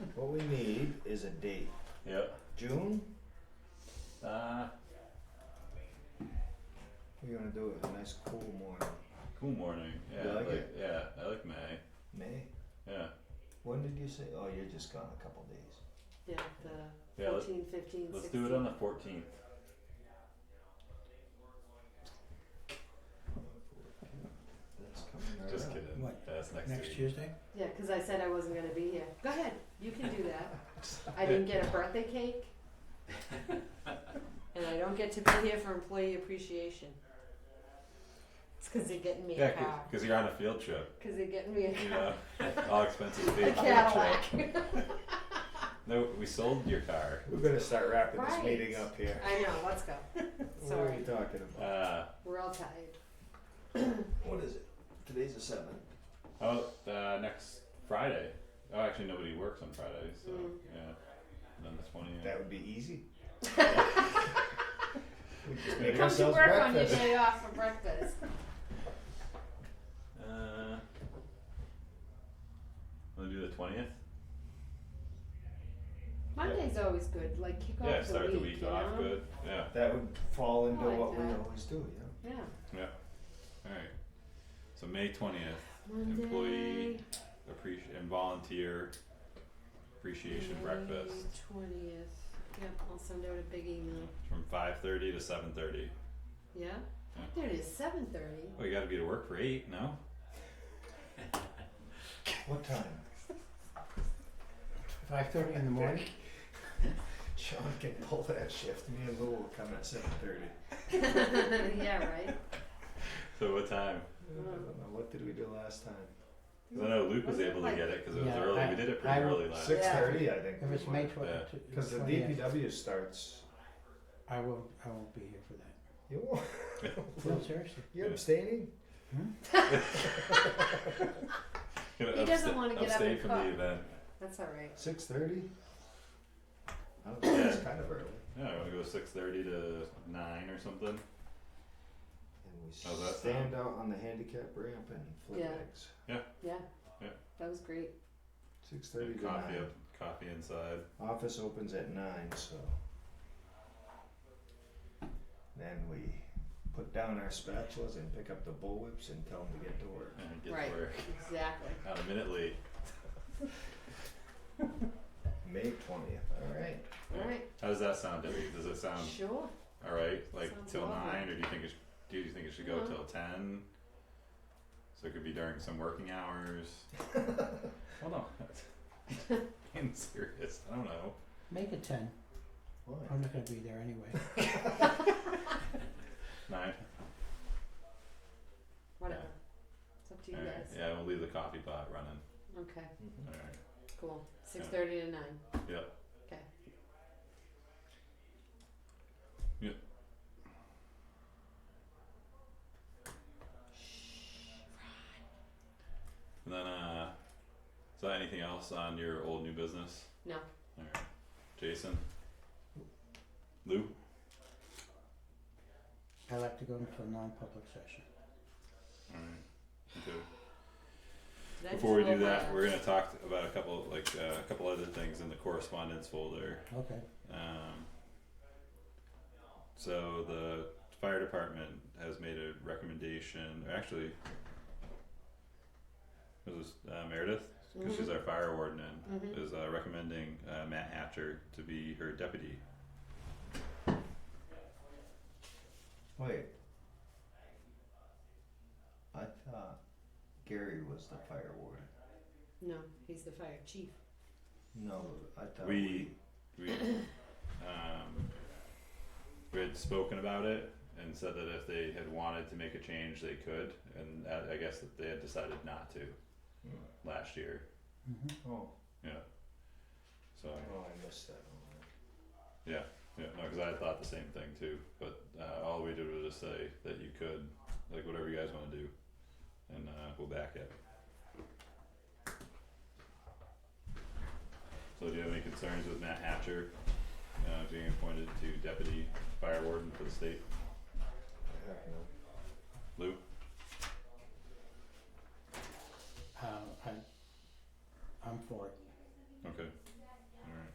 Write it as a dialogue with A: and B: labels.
A: What we need is a date.
B: Yep.
A: June?
B: Uh,
A: We're gonna do it a nice cool morning.
B: cool morning. Yeah,
A: You
B: I
A: like
B: like
A: it?
B: yeah, I like May.
A: May?
B: Yeah,
A: When did you say? Oh, you're just gone a couple days.
C: Yeah, the
B: Yeah, let's-
C: 14, 15,
B: let's
C: 16.
B: do it on the 14th.
A: That's coming right
B: Just
A: up.
B: kidding.
D: What?
B: That's next,
D: Next
B: week.
D: Tuesday?
C: Yeah, because I said I wasn't going to be here. Go ahead. You can do that. I didn't get a birthday cake. and I don't get to be here for employee appreciation. It's because they're getting me
B: Yeah,
C: a car.
B: because you're on a field trip.
C: Because they're getting me a
B: You
C: car.
B: know, all expenses paid
C: a
B: field
C: Cadillac.
B: trip. No, we sold your car.
A: We're gonna start wrapping
C: Right.
A: this meeting up here.
C: I know, let's go.
A: What are
C: Sorry,
A: we talking about?
B: Uh,
C: we're all tired.
A: What is it? Today's the seventh.
B: oh, uh, next Friday. Oh, actually, nobody works on Friday, so
C: Mm.
B: yeah. Then the 20th.
A: That would be easy. we just
B: Come
A: make
C: Come to
A: ourselves
C: work on your
A: breakfast.
C: day off for breakfast.
B: Uh, want to do the 20th?
C: Monday's always good, like kick off
B: yeah,
C: the
B: start
C: week.
B: the week
C: you
B: off
C: know?
B: good. Yeah,
A: That would fall into
C: I like
A: what we
C: that.
A: always do, you know.
C: Yeah.
B: yeah. All right. So May 20th.
C: Monday.
B: Employee appreciation and volunteer appreciation breakfast
C: Twentieth. Yep, I'll send out a big email.
B: from 5:30 to 7:30.
C: Yeah?
B: Yeah.
C: There it is, seven thirty.
B: Well, you got to be to work for eight, no?
A: What time?
D: Five thirty in the morning?
A: Sean can pull that shift. Me and Lou will come at seven thirty.
C: yeah, right?
B: So what time?
A: I don't know. What did we do last time?
B: 'Cause I know Luke was
C: Wasn't it
B: able to
C: like-
B: get it because it was
D: Yeah,
B: early.
D: I-
B: we did it pretty
D: I-
B: early last.
A: Six thirty, I think.
D: If it's May twen-
B: Yeah.
D: t-
A: Because the
D: 20th,
A: DPW starts.
D: I will, I won't be here for that.
A: You
D: No,
A: won't.
D: seriously.
A: You're abstaining.
B: Gonna
C: He doesn't wanna get up
B: abstain
C: and
B: from the
C: cook.
B: event.
C: That's all right.
A: Six thirty. I don't know. It's
B: Yeah.
A: kind of early.
B: Yeah, I want to go 6:30 to 9 or something.
A: And we
B: How's that
A: stand out on the handicap ramp and flip
C: Yeah.
A: eggs.
C: Yeah.
B: Yeah.
C: That was great.
A: Six thirty
B: And
A: to
B: coffee,
A: nine.
B: up, coffee inside.
A: Office opens at nine, so. Then we put down our spatulas and pick up the bullwhips and tell them to get to work.
B: And get
C: Right.
B: to work.
C: Exactly.
B: Not a minute late.
A: May twentieth, alright.
B: Yeah.
C: All right.
B: How does that sound, Debbie? Does it sound
C: Sure.
B: all right? Like
C: Sounds
B: till
C: lovely. Uh-huh.
B: nine, or do you think it? Sh- do you think it should go
C: No.
B: till ten? So it could be during some working hours. Hold on. I'm serious. I don't know.
D: Make it ten.
A: Why?
D: I'm not gonna be there anyway.
B: Nine.
C: Whatever. It's up to you
B: All right.
C: guys.
B: Yeah, we'll leave the coffee pot running.
C: Okay,
A: Mhm.
B: All right.
C: cool. Six thirty to nine.
B: Yep.
C: Okay.
B: Yep. And then, uh, is there anything else on your old new business?
C: No.
B: All right. Jason. Lou.
D: I like to go into a non-public session.
B: All right. Okay.
C: Did I
B: Before we
C: just
B: do
C: roll my
B: that, we're
C: eyes?
B: gonna talk about a couple, like uh, a couple other things in the correspondence folder.
D: Okay.
B: Um, so the fire department has made a recommendation, or actually, it was uh, Meredith,
C: Mm-hmm.
B: because she's our fire warden,
C: Mhm.
B: is uh, recommending uh, Matt Hatcher to be her deputy.
A: Wait. I thought Gary was the fire warden.
C: No, he's the fire chief.
A: No, I thought
B: We, we, um, we had spoken about it and said that if they had wanted to make a change, they could, and I, I guess that they had decided not to
A: Hmm.
B: last year.
D: hmm
A: Oh,
B: So
A: oh, I missed that one.
B: yeah, no, because I thought the same thing too. But uh, all we did was just say that you could, like, whatever you guys want to do, and uh, we'll back it. So do you have any concerns with Matt Hatcher uh, being appointed to deputy fire warden for the state?
A: Heck no.
B: Lou?
D: Uh,